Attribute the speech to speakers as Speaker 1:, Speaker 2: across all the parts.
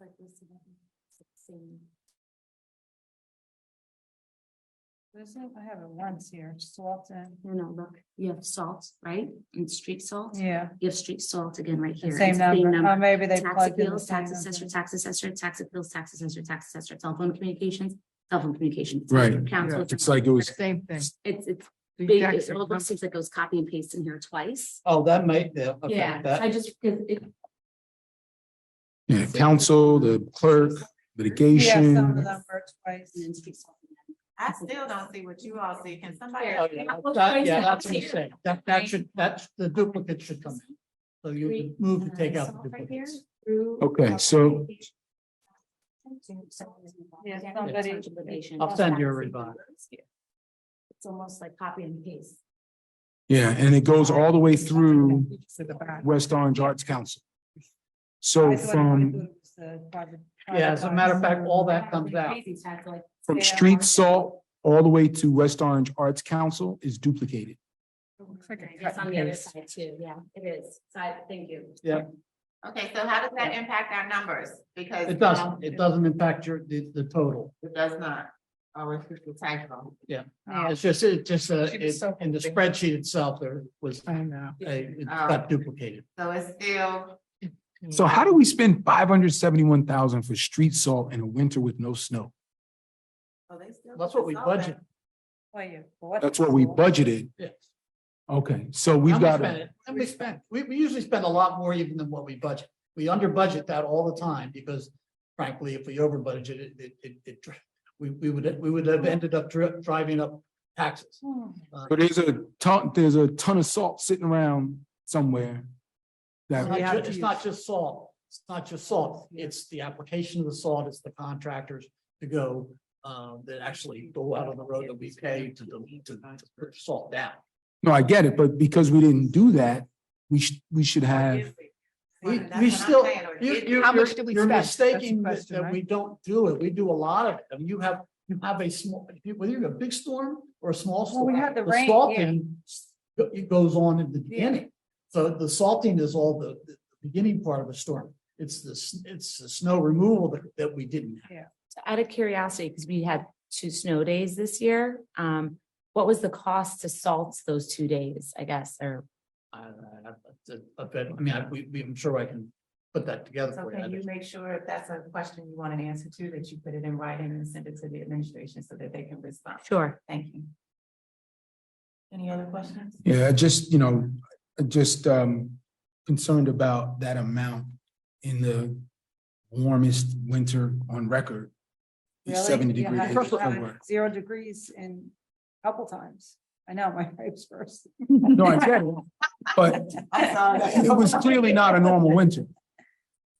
Speaker 1: Like this one, sixteen.
Speaker 2: Listen, I have it once here, Salton.
Speaker 1: No, no, look, you have salt, right? And street salt.
Speaker 2: Yeah,
Speaker 1: You have street salt again right
Speaker 2: the
Speaker 1: here.
Speaker 2: same
Speaker 1: It's the same
Speaker 2: number, or maybe they
Speaker 1: Tax
Speaker 2: plugged in the
Speaker 1: appeals,
Speaker 2: same
Speaker 1: tax assessor,
Speaker 2: number.
Speaker 1: tax assessor, tax appeals, tax assessor, tax assessor, telephone communications, telephone communications.
Speaker 3: Right.
Speaker 1: Council.
Speaker 3: It's like it was,
Speaker 4: Same thing.
Speaker 1: It's, it's
Speaker 4: The
Speaker 1: big,
Speaker 4: exact
Speaker 1: it
Speaker 4: same
Speaker 1: almost seems like it was copy and paste in here twice.
Speaker 5: Oh, that might, yeah, okay,
Speaker 1: Yeah, so I
Speaker 5: that,
Speaker 1: just, it, it,
Speaker 3: yeah, council, the clerk,
Speaker 2: Yeah, some of
Speaker 3: litigation.
Speaker 2: them are twice.
Speaker 1: and then street salt.
Speaker 6: I still don't see what you all see. Can somebody?
Speaker 1: Yeah.
Speaker 5: oh, yeah, that- yeah, that's what I'm saying, that, that should, that's, the duplicate should come in. So you can move
Speaker 1: uh,
Speaker 5: to take out the duplicates.
Speaker 3: Okay, so-
Speaker 2: Yeah, somebody-
Speaker 5: I'll send you a revised.
Speaker 1: It's almost like copy and paste.
Speaker 3: Yeah, and it goes all the way through
Speaker 2: To the back.
Speaker 3: West Orange Arts Council.
Speaker 2: I
Speaker 3: So
Speaker 2: thought it would
Speaker 3: from,
Speaker 2: include the project-
Speaker 5: Yeah, as a matter of
Speaker 2: project
Speaker 5: fact, all that comes out.
Speaker 1: Crazy tax, like,
Speaker 3: from street salt all the way to West Orange Arts Council is duplicated.
Speaker 1: It's on the other side too, yeah, it is, so I, thank you.
Speaker 5: Yeah.
Speaker 6: Okay, so how does that impact our numbers? Because.
Speaker 5: It
Speaker 6: um,
Speaker 5: doesn't, it doesn't impact your, the, the total.
Speaker 6: It does not. Oh, it's just a typo.
Speaker 2: Oh.
Speaker 5: It's just, it just, uh,
Speaker 2: She was
Speaker 5: it-
Speaker 2: so
Speaker 5: in the
Speaker 2: hoping.
Speaker 5: spreadsheet itself, there was, uh,
Speaker 2: I know.
Speaker 5: it
Speaker 2: Um,
Speaker 5: got duplicated.
Speaker 6: So it's still,
Speaker 3: So how do we spend five hundred seventy-one thousand for street salt in a winter with no snow?
Speaker 6: so oh, they still.
Speaker 5: That's what we budget.
Speaker 2: Well, you bought
Speaker 3: That's
Speaker 2: it.
Speaker 3: what we budgeted.
Speaker 5: Yes.
Speaker 3: Okay, so we've
Speaker 5: And we
Speaker 3: got,
Speaker 5: spent
Speaker 3: to
Speaker 5: it, And we spent, we, we usually spend a lot more even than what we budget. We under budget that all the time because frankly, if we over budget it, it, it, it, dr- we, we would, we would have ended up dri- driving up taxes.
Speaker 2: Hmm.
Speaker 5: Uh,
Speaker 3: but there's a ton, there's a ton of salt sitting around somewhere.
Speaker 5: It's
Speaker 3: That,
Speaker 5: not ju- it's not just salt, it's not just salt, it's the application of the salt, it's the contractors to go, uh, that actually go out on the road that we pay to, the- to, to put salt down.
Speaker 3: no, I get it, but because we didn't do that, we should, we should have
Speaker 5: We,
Speaker 6: That's
Speaker 5: we
Speaker 6: what I'm
Speaker 5: still,
Speaker 6: saying, or
Speaker 5: you,
Speaker 6: did-
Speaker 5: you,
Speaker 4: How
Speaker 5: you're,
Speaker 4: much do we
Speaker 5: you're
Speaker 4: spend? That's the
Speaker 5: mistaking that,
Speaker 2: question,
Speaker 5: that
Speaker 2: right?
Speaker 5: we don't do it. We do a lot of it. I mean, you have, you have a small, if you- whether you have a big storm or a small
Speaker 2: Well,
Speaker 5: storm.
Speaker 2: we had the rain,
Speaker 5: salting go- It goes on in the beginning. So the salting is all the, the beginning part of a storm. It's the, s- it's the snow removal that, that we didn't have.
Speaker 1: Out of curiosity, because we had two snow days this year, um, what was the cost to salt those two days, I guess, or?
Speaker 5: I- I- I- I bet, I mean, I, we, we, I'm sure I can put that together
Speaker 6: So
Speaker 5: for
Speaker 6: can you
Speaker 5: you.
Speaker 6: make sure if that's a question you want an answer to, that you put it in writing and send it to the administration so that they can respond?
Speaker 1: Sure.
Speaker 6: Thank you. Any other questions?
Speaker 3: Yeah, I just, you know, I just um concerned about that amount in the warmest winter on record.
Speaker 2: Really?
Speaker 3: Seventy
Speaker 2: Yeah,
Speaker 3: degrees.
Speaker 2: I-
Speaker 5: First of all-
Speaker 2: I- Zero degrees in a couple times. I know, my face first.
Speaker 3: No, I get it, but
Speaker 6: I'm sorry.
Speaker 3: it was clearly not a normal winter.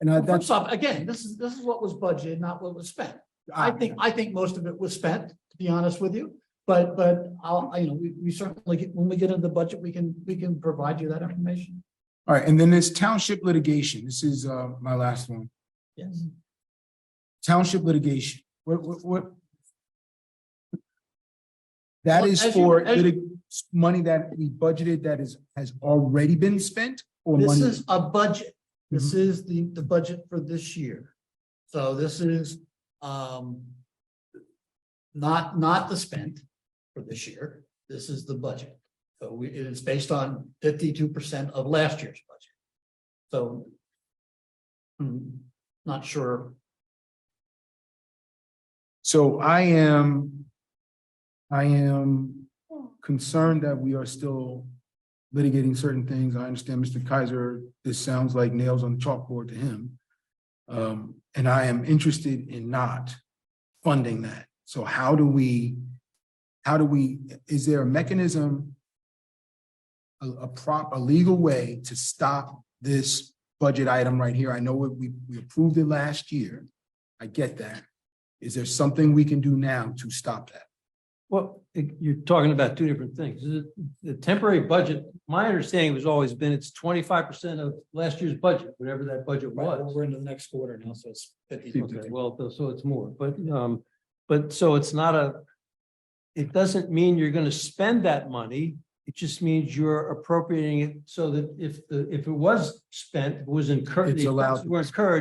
Speaker 3: And I, that's,
Speaker 5: First off, again, this is, this is what was budgeted, not what was spent. I
Speaker 3: I
Speaker 5: think, I think most of it was spent, to be honest with you, but, but I'll, I- you know, we, we certainly, get- when we get into the budget, we can, we can provide you that information.
Speaker 3: all right, and then this township litigation, this is uh my last one,
Speaker 5: Yes.
Speaker 3: township litigation, what what what? That
Speaker 5: Well,
Speaker 3: is
Speaker 5: as you-
Speaker 3: for
Speaker 5: as-
Speaker 3: litig- money that we budgeted that is, has already been spent or money?
Speaker 5: This is a budget. This is the, the budget for this year. So this is, um, not, not the spent for this year. This is the budget. So we, it is based on fifty-two percent of last year's budget. So I'm not sure.
Speaker 3: So I am, I am concerned that we are still litigating certain things. I understand Mr. Kaiser, this sounds like nails on the chalkboard to him. Um, and I am interested in not funding that. So how do we, how do we, is there a mechanism, a, a prop, a legal way to stop this budget item right here? I know we- we, we approved it last year. I get that. Is there something we can do now to stop that?
Speaker 7: Well, it- you're talking about two different things. The- The temporary budget, my understanding has always been it's twenty-five percent of last year's budget, whatever that budget was.
Speaker 5: into the next quarter now, so it's
Speaker 7: Okay, Well, th- so it's more, but, um, but so it's not a, it doesn't mean you're gonna spend that money. It just means you're appropriating it so that if the, if it was spent, was incurred,
Speaker 3: It's
Speaker 7: the
Speaker 3: allowed
Speaker 7: expenses were incurred,